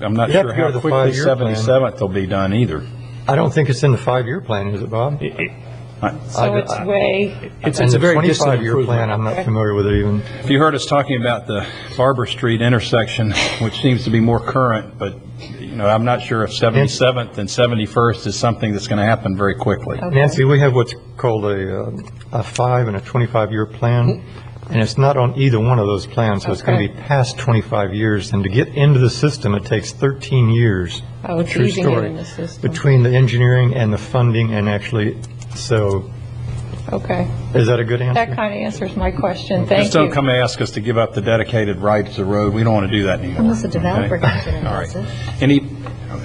I'm not You have sure to go to how the quickly five-year plan. 77th will be done either. I don't think it's in the five-year plan, is it, Bob? So it's way. It's, it's a very distant And the 25-year plan, improvement. I'm not familiar with it even. If you heard us talking about the Barber Street intersection, which seems to be more current, but, you know, I'm not sure if 77th and 71st is something that's going to happen very quickly. Nancy, we have what's called a, uh, a five and a 25-year plan, and it's not on either one of those plans, so it's going to Okay. be past 25 years. And to get into the system, it takes 13 years. Oh, it's True easing it story. in the system. Between the engineering and the funding and actually, so Okay. is that a good That answer? kind of answers my question. Thank Just don't you. come ask us to give up the dedicated rights to the road. We don't want to do that anymore. Unless the developer okay? comes in and All does right. it. Any,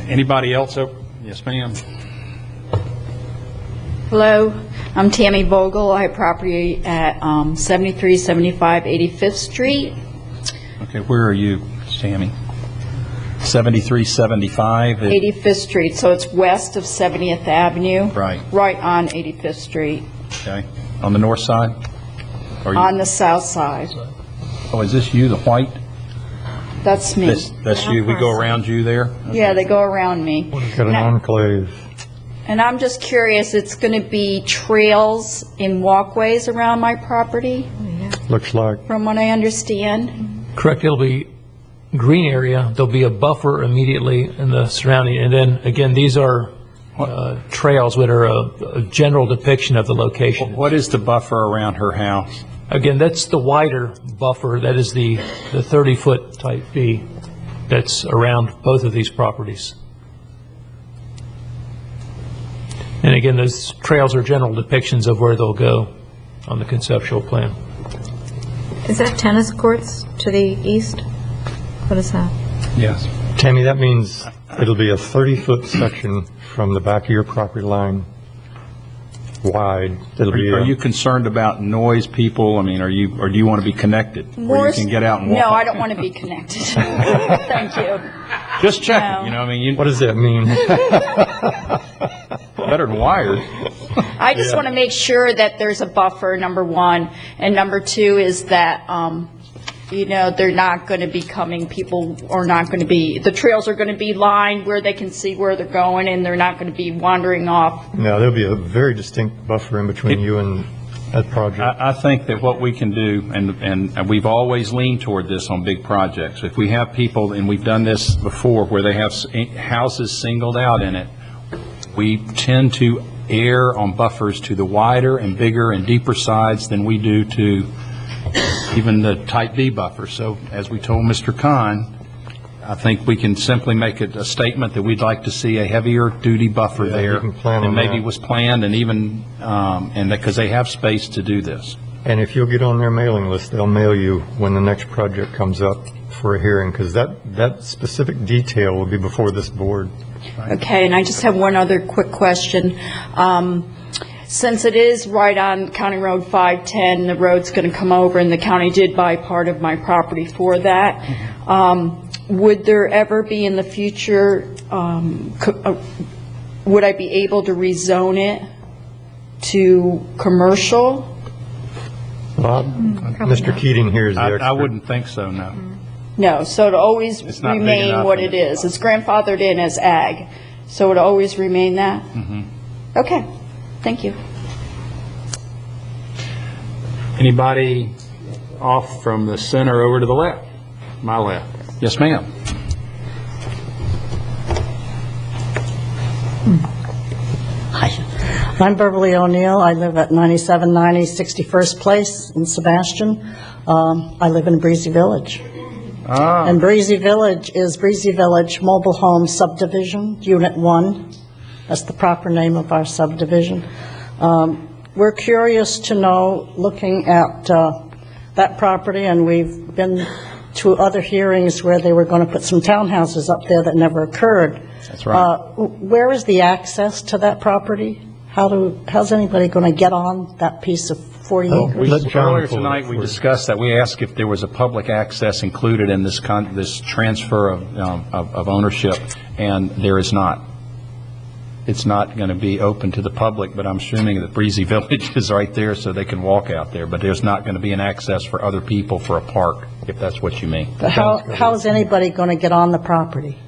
anybody else? up- Yes, ma'am. Hello, I'm Tammy Vogel. I have property at um, 7375 85th Street. Okay, where are you, Sammy? 7375? 85th Street, so it's west of 70th Avenue. Right. Right on 85th Street, Okay, on the north side? Are you- on the south side. Oh, is this you, the white? That's me. That's, that's you, we go around you there? Yeah, they go around me. Got an enclave. And I'm just curious, it's going to be trails and walkways around my property, Looks like, from what I understand? Correct, it'll be green area, there'll be a buffer immediately in the surrounding, and then, again, these are uh, trails that are a a general depiction of the location. What is the buffer around her house? Again, that's the wider buffer, that is the the 30-foot type B that's around both of these properties. And again, those trails are general depictions of where they'll go on the conceptual plan. Is that tennis courts to the east? What is that? Yes. Tammy, that means it'll be a 30-foot section from the back of your property line wide. It'll Are be. you- a- are you concerned about noise, people? I mean, are you, or do you want to be connected? Where you Worst- can get out and walk? No, I on- don't want to be connected. Thank you. Just no. checking, you know, I mean, you What does that mean? better than wired. I just want to make sure that there's a buffer, number one, and number two is that, um, you know, they're not going to be coming, people are not going to be, the trails are going to be lined where they can see where they're going, and they're not going to be wandering off. No, there'll be a very distinct buffer in between you and that project. I, I think that what we can do, and, and we've always leaned toward this on big projects, if we have people, and we've done this before, where they have s- eh, houses singled out in it, we tend to err on buffers to the wider and bigger and deeper sides than we do to even the type B buffer. So as we told Mr. Khan, I think we can simply make it a statement that we'd like to see a heavier duty buffer Yeah, you there can plan than on maybe that. was planned and even, um, and because they have space to do this. And if you'll get on their mailing list, they'll mail you when the next project comes up for a hearing, because that, that specific detail will be before this board. Okay, and I just have one other quick question. Um, Since it is right on County Road 510, the road's going to come over, and the county did buy part of my property for that, um, would there ever be in the future, um, co- uh, would I be able to rezone it to commercial? Bob, Mr. Keating here is the I, expert. I wouldn't think so, no. No, so it'll always It's not big remain enough. what it is. It's grandfathered in as ag, so it'll always remain that? Mm-hmm. Okay, thank you. Anybody off from the center over to the left? My left. Yes, ma'am. Hi, I'm Beverly O'Neill. I live at 9790 61st Place in Sebastian. Um, I live in Breezy Village. Ah. And Breezy Village is Breezy Village Mobile Home Subdivision, Unit 1. That's the proper name of our subdivision. Um, We're curious to know, looking at uh, that property, and we've been to other hearings where they were going to put some townhouses up there that never occurred. That's right. Uh, Where is the access to that property? How do, how's anybody going to get on that piece of 40 Oh, acres? we- Let John Earlier pull it tonight, up we for us. discussed that. We asked if there was a public access included in this con, this transfer of, um, of of ownership, and there is not. It's not going to be open to the public, but I'm assuming that Breezy Village is right there, so they can walk out there, but there's not going to be an access for other people for a park, if that's what you mean. How, how is anybody going to get on the property?